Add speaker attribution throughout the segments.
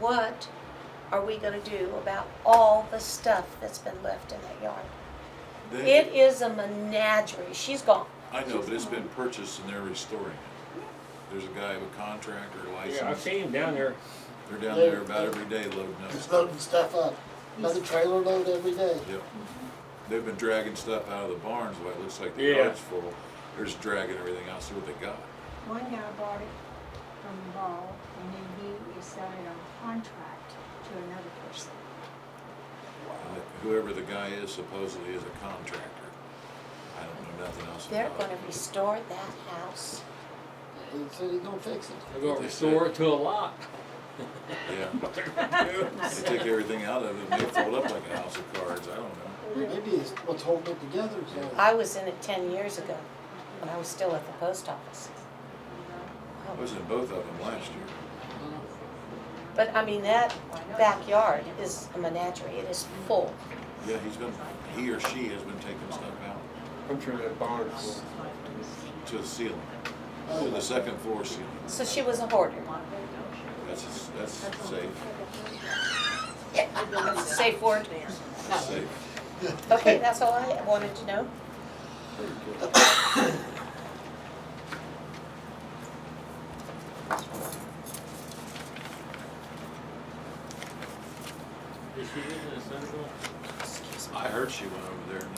Speaker 1: what are we gonna do about all the stuff that's been left in that yard?
Speaker 2: They-
Speaker 1: It is a menagerie, she's gone.
Speaker 2: I know, but it's been purchased and they're restoring it. There's a guy with a contractor
Speaker 3: Yeah, I've
Speaker 2: license,
Speaker 3: seen him down there.
Speaker 2: they're down there about every day loading up
Speaker 4: Just
Speaker 2: stuff.
Speaker 4: loading stuff up, another trailer load every day.
Speaker 2: Yep. They've been dragging stuff out of the barns, like, it looks like the
Speaker 3: Yeah.
Speaker 2: yard's full, they're just dragging everything out, see what they got.
Speaker 5: One guy bought it from Ball, and then he is selling on contract to another person.
Speaker 2: And the- Uh, Whoever the guy is supposedly is a contractor. I don't know nothing else
Speaker 1: They're
Speaker 2: about
Speaker 1: gonna
Speaker 2: it.
Speaker 1: restore that house.
Speaker 4: He said he's gonna fix it.
Speaker 3: They're gonna restore it to a lot.
Speaker 2: Yeah,
Speaker 3: Well,
Speaker 2: they take everything out of it and they fold up like a house of cards, I don't know.
Speaker 4: Maybe it's what's holding it together, so.
Speaker 1: I was in it ten years ago, when I was still at the post office.
Speaker 2: I was in both of them last year.
Speaker 1: But I mean, that backyard is a menagerie, it is full.
Speaker 2: Yeah, he's been, he or she has been taking stuff out
Speaker 3: I'm sure that barn is
Speaker 2: to the ceiling, to the second floor ceiling.
Speaker 1: So she was a hoarder,
Speaker 2: That's, that's safe,
Speaker 1: That's a safe word.
Speaker 2: that's safe.
Speaker 1: Okay, that's all I wanted to know.
Speaker 2: I heard she went over there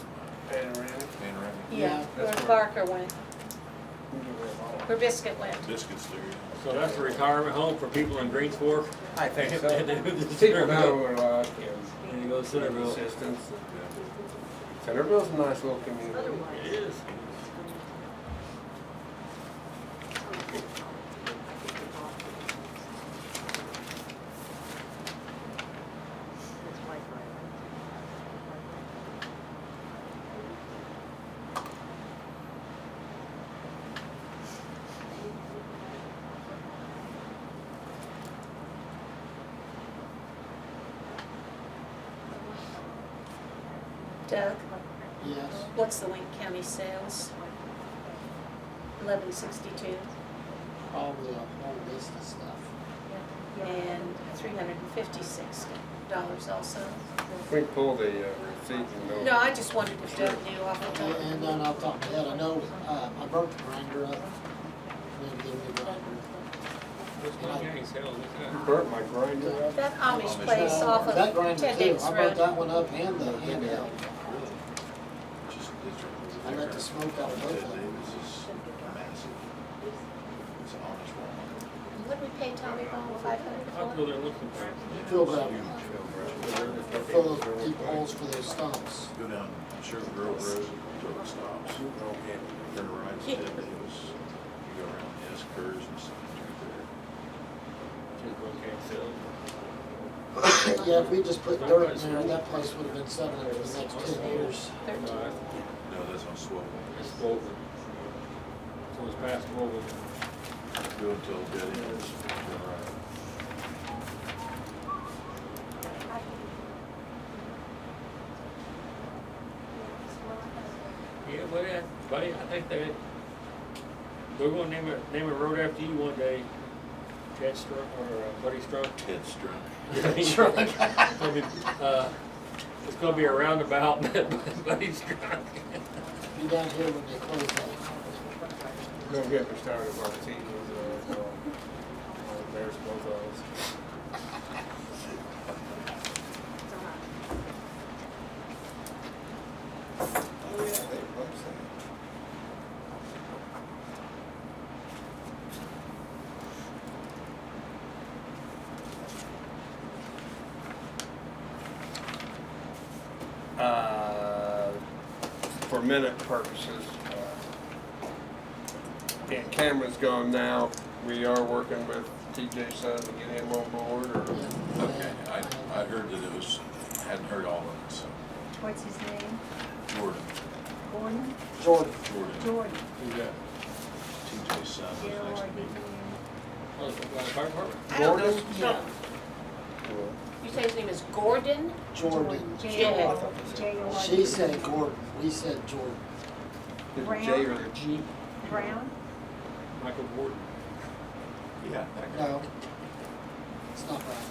Speaker 2: and, uh,
Speaker 3: full.
Speaker 2: panoramic.
Speaker 1: Yeah, where
Speaker 3: That's right.
Speaker 1: Barker went, where Biscuit went.
Speaker 2: Biscuits there, yeah.
Speaker 3: So that's a retirement home for people in Greens Fork?
Speaker 6: I think so.
Speaker 3: And they go to
Speaker 6: People know
Speaker 3: Centerville.
Speaker 6: where a lot
Speaker 3: And they go to Centerville.
Speaker 6: Assistance. Centerville's a nice little community.
Speaker 3: It is.
Speaker 1: Doug,
Speaker 4: Yes,
Speaker 1: what's the Wayne County sales? Eleven sixty-two
Speaker 4: all the, all this and stuff.
Speaker 1: and three hundred and fifty-six dollars also.
Speaker 6: We pull the uh, receipt and
Speaker 1: No,
Speaker 6: know.
Speaker 1: I just wondered if Doug knew off the top.
Speaker 4: And Oh. and uh, then I'll talk to Ed, I know, uh, I broke the grinder up. Maybe give me a grinder.
Speaker 3: That's my gang's hell, look at that.
Speaker 6: Burnt my grinder up.
Speaker 1: That Amish place off
Speaker 4: Uh, That
Speaker 1: of
Speaker 4: grinder
Speaker 1: Ted
Speaker 4: too,
Speaker 1: Davis
Speaker 4: I broke
Speaker 1: Road.
Speaker 4: that one up and the handheld.
Speaker 2: Just-
Speaker 4: I let the smoke out of
Speaker 2: Ted
Speaker 4: both of them.
Speaker 2: Davis is massive. It's an honest one.
Speaker 1: Would we pay Tommy Ball five hundred
Speaker 3: I'll
Speaker 1: for
Speaker 3: go
Speaker 1: it?
Speaker 3: there and look for
Speaker 4: Fill that,
Speaker 6: Burnt
Speaker 4: fill those deep holes for those stumps.
Speaker 2: Go down Sherman Grove Road, truck stops, turn right, Ted Davis. You go around S curves and stuff right
Speaker 4: Yeah, if we just put dirt in there, that place would have been settling for the next ten years.
Speaker 1: Thirteen.
Speaker 2: there. No, that's on Swell.
Speaker 3: It's Boulder. So it's past Boulder.
Speaker 2: Go until dead ends, turn right.
Speaker 3: Yeah, well, yeah, buddy, I think that we're gonna name a, name a road after you one day. Chad Strunk or uh, Buddy Strunk.
Speaker 2: Ted Strunk.
Speaker 3: I mean, uh, It's gonna be a roundabout, Buddy Strunk.
Speaker 4: Be down here when they close that.
Speaker 6: Don't get me started about the team. uh, so, uh, There's both of us. Oh, yeah, they bump some. Uh, For minute purposes, uh, and Cameron's gone now, we are working with TJ Sun to get him on board, or?
Speaker 2: Okay, I, I heard that it was, hadn't heard all of it, so
Speaker 5: What's his name?
Speaker 2: Jordan,
Speaker 5: Gordon?
Speaker 4: Jordan,
Speaker 2: Jordan,
Speaker 5: Jordan.
Speaker 2: TJ's son, was next
Speaker 5: E
Speaker 2: to me.
Speaker 3: Oh, it's by the fire department?
Speaker 1: I don't know.
Speaker 4: Yeah.
Speaker 1: You say his name is Gordon?
Speaker 4: Jordan.
Speaker 5: J O, J O R D. E
Speaker 4: She said Gordon, we said Jordan.
Speaker 6: Is it
Speaker 5: Brown?
Speaker 6: J or a G?
Speaker 5: Brown?
Speaker 3: Michael Gordon.
Speaker 2: Yeah, that guy.
Speaker 4: No. It's not right.